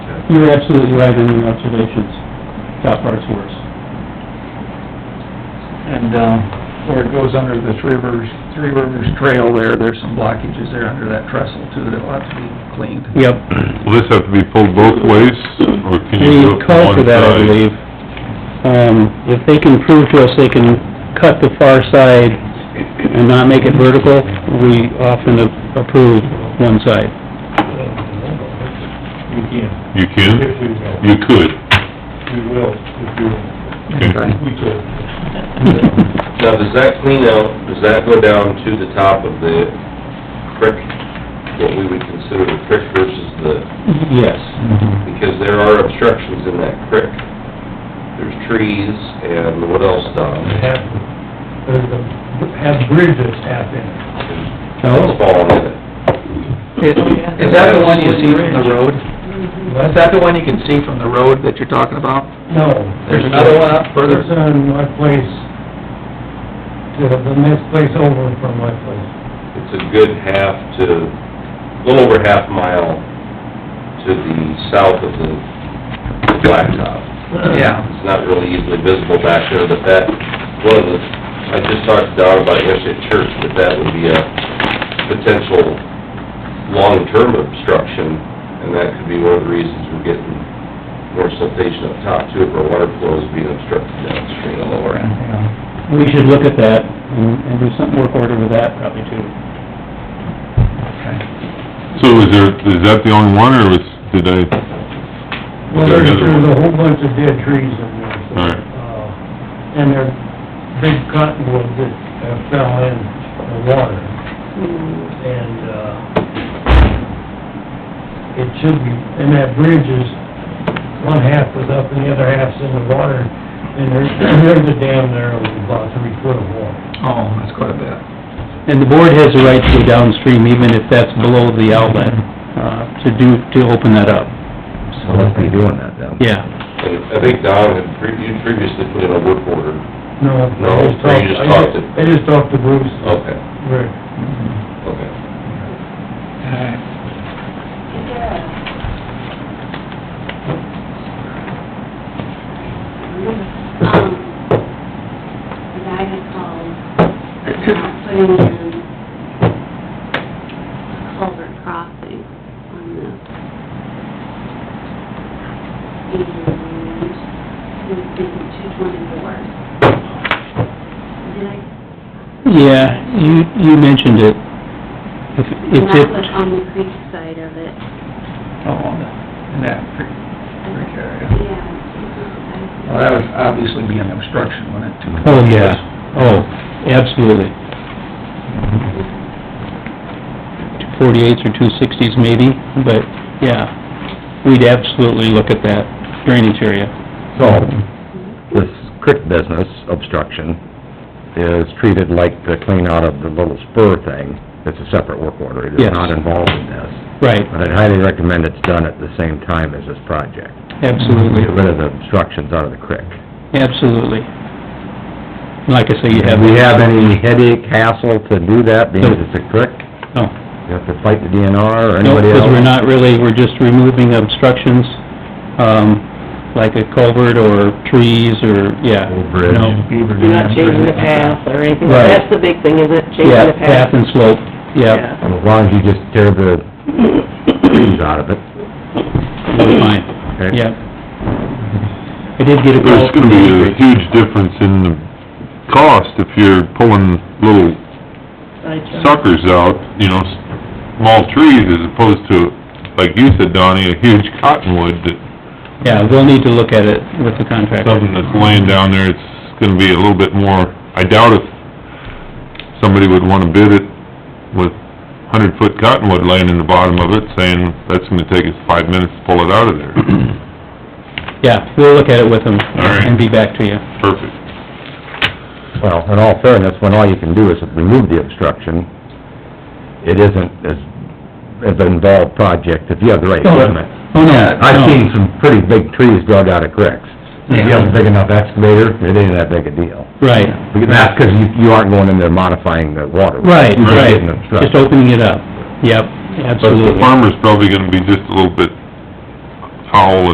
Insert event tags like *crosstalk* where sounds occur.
you're absolutely right in your observations. Top part's worse. And, uh, where it goes under the Three Rivers, Three Rivers Trail there, there's some blockages there under that trestle too that'll have to be cleaned. Yep. Will this have to be pulled both ways, or can you do We it from called one for that, I side? believe. Um, if they can prove to us they can cut the far side and not make it vertical, we often approve one side. We can, You can? if we will, You could. we will, if you, Okay. we could. Now, does that clean out, does that go down to the top of the creek? What we would consider the creek versus the, Yes. because there are obstructions in that creek. There's trees and what else down there? Have, there's a, have bridges half in it. It's falling in it. Is is that the one you see from the road? Is that the one you can see from the road that you're talking about? No. There's another one up further? It's on my place, to the next place over from my place. It's a good half to, a little over half mile to the south of the the blacktop. Yeah. It's not really easily visible back there, but that, one of the, I just talked to Don about it yesterday at church, that that would be a potential long-term obstruction, and that could be one of the reasons we're getting more siltation up top too, if our water flow is being obstructed downstream the lower end. Yeah. We should look at that and, and do some work order with that probably too. So is there, is that the only one, or was, did I, Well, there another there's, there's one? a whole bunch of dead trees in there. so, Alright. uh, And they're big cottonwood that uh, fell in the water. Hmm. And, uh, it should be, and that bridge is, one half is up and the other half's in the water. And there's, *clears throat* there's a dam there of about three foot of water. Oh, that's quite a bit. And the board has the right to go downstream even if that's below the outlet, uh, to do, to open that up. So let's be doing that then. Yeah. And I think Don had, pre- you previously put in a work order. No. I No, just so you just I talked to- Oh. I just talked to Bruce, Okay, Rick. Mm-hmm. okay. Alright. Um, The guy had called, about putting in a culvert crossing on this. And it was in two twenty-four. Did I, Yeah, you, you mentioned it. If, and if that it, was on the creek side of it. Oh, in that creek creek area. Well, Yeah. that would obviously be an obstruction, wouldn't it? too? oh, yeah, oh, absolutely. Two forty-eights or two sixties maybe, but, yeah, we'd absolutely look at that drainage area. So, this creek business obstruction is treated like the clean out of the little spur thing. It's a separate work order. It is Yes. not involved in this. Right, But I'd highly recommend it's done at the same time as this project. absolutely, Get rid of the obstructions out of the creek. absolutely. Like I say, you have... Do we have any headache, hassle to do that, being No. it's a creek? No. You have to fight the DNR or No, anybody else? because we're not really, we're just removing obstructions, um, like a culvert or trees or, yeah. Old bridge. No. You're not changing the path or anything, Right. that's the big thing, isn't it, Yeah, changing the path path? and slope, yeah, Yeah. As long as you just tear the *coughs* trees out of it. we're fine, Hmm. okay? yeah. I did get a call. there's gonna be a huge difference in the cost if you're pulling little suckers out, you know, small trees as opposed to, like you said, Donnie, a huge cottonwood that, Yeah, we'll need to look at it with the contractor. something that's laying down there, it's gonna be a little bit more, I doubt if somebody would wanna bid it with hundred-foot cottonwood laying in the bottom of it, saying, that's gonna take us five minutes to pull it out of there. Yeah, we'll look at it with them All right. and be back to you. Perfect. Well, in all fairness, when all you can do is remove the obstruction, it isn't as, as an involved project if you have the right equipment. Oh, no, I've no. seen some pretty big trees dug out of cricks. If you have a big enough excavator, it ain't that big a deal. Right, Because That's 'cause you, you aren't going in there modifying the water. right, You're just right, getting obstructed. just opening it up, yep, But the absolutely. farmer's probably gonna be just a little bit howl